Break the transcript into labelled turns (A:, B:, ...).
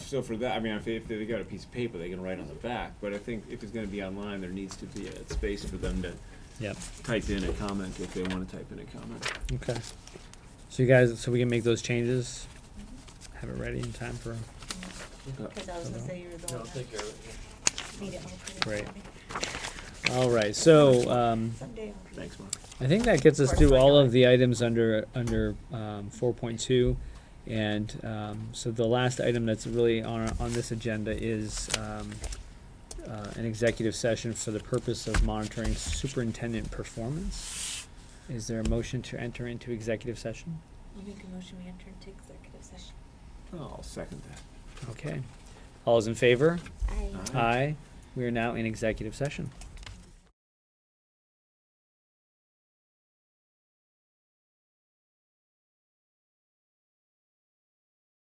A: so for that, I mean, if they, if they got a piece of paper, they can write on the back, but I think if it's gonna be online, there needs to be a space for them to
B: Yep.
A: type in a comment if they wanna type in a comment.
B: Okay. So you guys, so we can make those changes, have it ready in time for.
A: Uh,
C: Because I was gonna say you were the
D: No,
C: one
D: take care of it.
C: that need it all for this
B: Great.
C: meeting.
B: All right. So um,
C: Someday I'll be-
A: Thanks, Mark.
B: I think that gets us
C: Or
B: through all
C: second.
B: of the items under under um, four point two, and um, so the last item that's really on on this agenda is. Um, uh, an executive session for the purpose of monitoring superintendent performance. Is there a motion to enter into executive session?
C: I'll make a motion we enter into executive session.
A: I'll second that.
B: Okay. All is in favor?
C: I.
A: Aye.
B: Aye. We are now in executive session.